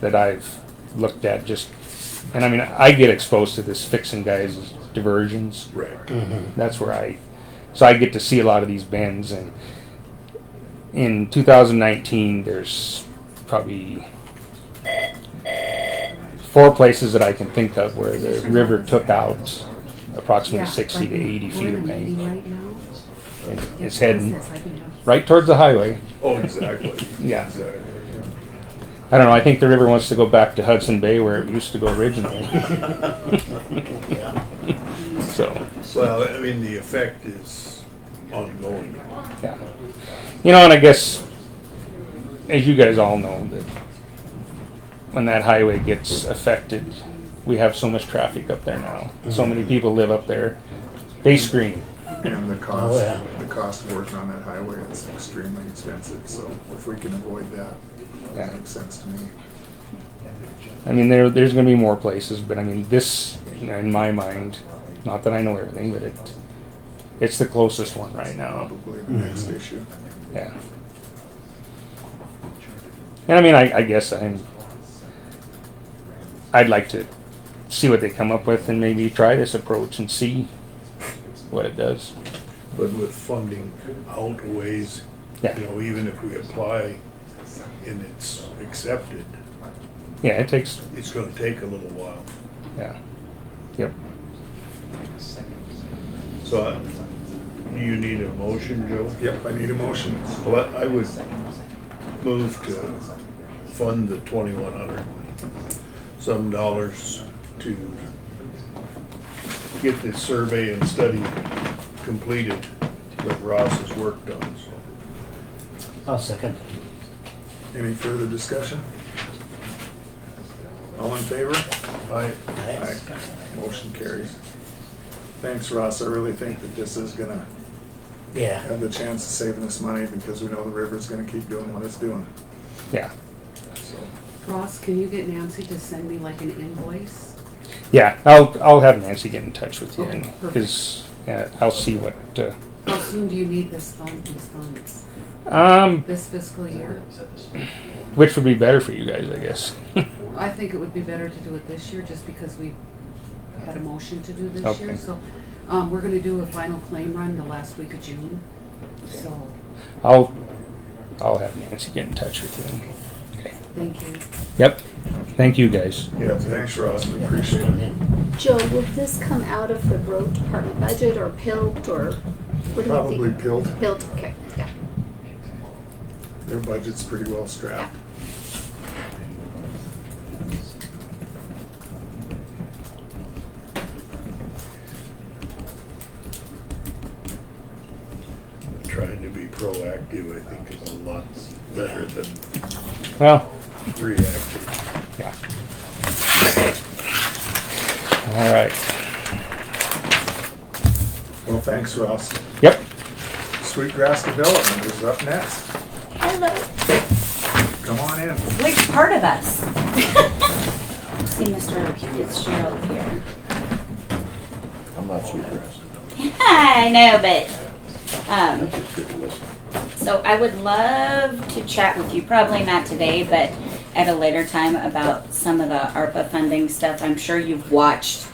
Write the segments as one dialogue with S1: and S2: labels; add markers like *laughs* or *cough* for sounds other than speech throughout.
S1: that I've looked at just, and I mean, I get exposed to this fixing guys' diversions.
S2: Right.
S1: That's where I, so I get to see a lot of these bends. And in 2019, there's probably four places that I can think of where the river took out approximately 60 to 80 feet of bank. And It's heading right towards the highway.
S2: Oh, exactly.
S1: *laughs* Yeah.
S2: Exactly.
S1: I don't know. I think the river wants to go back to Hudson Bay where it used to go originally. *laughs* so,
S2: Well, I mean, the effect is ongoing.
S1: yeah. You know, and I guess, as you guys all know, that when that highway gets affected, we have so much traffic up there now. So many people live up there. They scream.
S3: And the cost,
S4: Oh, yeah.
S3: the cost of working on that highway is extremely expensive, so if we can avoid that,
S1: Yeah.
S3: that makes sense to me.
S1: I mean, there there's going to be more places, but I mean, this you know, in my mind, not that I know everything, but it it's the closest one right now.
S3: Probably the next issue.
S1: Yeah. And I mean, I, I guess I'm. I'd like to see what they come up with and maybe try this approach and see what it does.
S2: But with funding outweighs,
S1: Yeah.
S2: you know, even if we apply and it's accepted,
S1: Yeah, it takes.
S2: it's gonna take a little while.
S1: Yeah. Yep.
S2: So I- you need a motion, Joe?
S3: Yep, I need a motion.
S2: Well, I I would move to fund the twenty-one hundred some dollars to get this survey and study completed that Ross has worked on, so.
S4: I'll second.
S3: Any further discussion? All in favor?
S2: I,
S3: Aye. Motion carries. Thanks, Ross, I really think that this is gonna
S4: Yeah,
S3: have the chance of saving us money because we know the river's gonna keep doing what it's doing,
S1: Yeah.
S3: so.
S5: Ross, can you get Nancy to send me like an invoice?
S1: Yeah. I'll I'll have Nancy get in touch with you
S5: Okay,
S1: and
S5: perfect.
S1: because uh, I'll see what. Uh,
S5: How soon do you need this fund, these funds?
S1: um,
S5: This fiscal year?
S1: which would be better for you guys, I guess. *laughs*
S5: I think it would be better to do it this year, just because we had a motion to do this
S1: Okay.
S5: year, so. Um, we're gonna do a final claim run the last week of June, so,
S1: I'll I'll have Nancy get in touch with you. Okay.
S5: thank you.
S1: Yep. Thank you guys.
S3: Yeah, thanks, Ross, we appreciate it.
S6: Joe, will this come out of the road department budget or PILT or? what do we
S3: Probably
S6: think?
S3: pilt,
S6: PILT, okay, yeah.
S3: their budget's pretty well strapped.
S2: trying to be proactive, I think is a lot better than
S1: Well.
S2: reactive.
S1: Yeah. All right.
S3: Well, thanks, Ross.
S1: Yep.
S3: Sweetgrass Development is up next. Hello. Come on in.
S7: Which part of us? See, Mr. Fitzgerald here.
S8: I'm not sure. Chris.
S7: I know, but,
S8: I'm
S7: um,
S8: just good to listen.
S7: so I would love to chat with you, probably not today, but at a later time about some of the ARPA funding stuff. I'm sure you've watched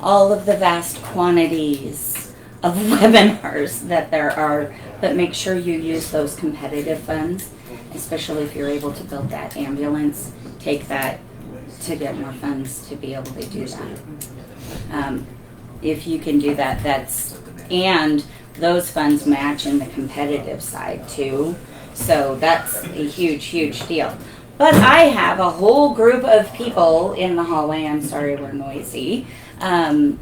S7: all of the vast quantities of *laughs* webinars that there are, but make sure you use those competitive funds, especially if you're able to build that ambulance, take that to get more funds to be able to do that. Um, if you can do that, that's, and those funds match in the competitive side too. So that's a huge, huge deal. But I have a whole group of people in the hallway. I'm sorry we're noisy. Um,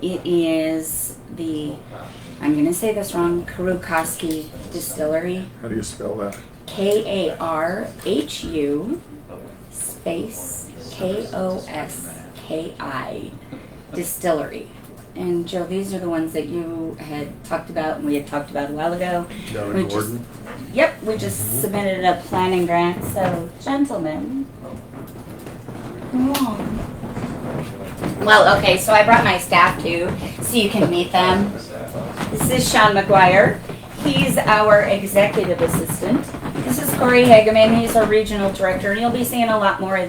S7: it is the, I'm going to say this wrong, Karukoski Distillery.
S3: How do you spell that?
S7: K A R H U space K O S K I distillery. And Joe, these are the ones that you had talked about and we had talked about a while ago.
S2: Down
S7: We
S2: in
S7: just-
S2: Gordon,
S7: Yep, we just submitted a planning grant, so gentlemen. come on. Well, okay, so I brought my staff too, so you can meet them. This is Sean McGuire. He's our executive assistant. This is Corey Hageman. He's our regional director, and you'll be seeing a lot more of these.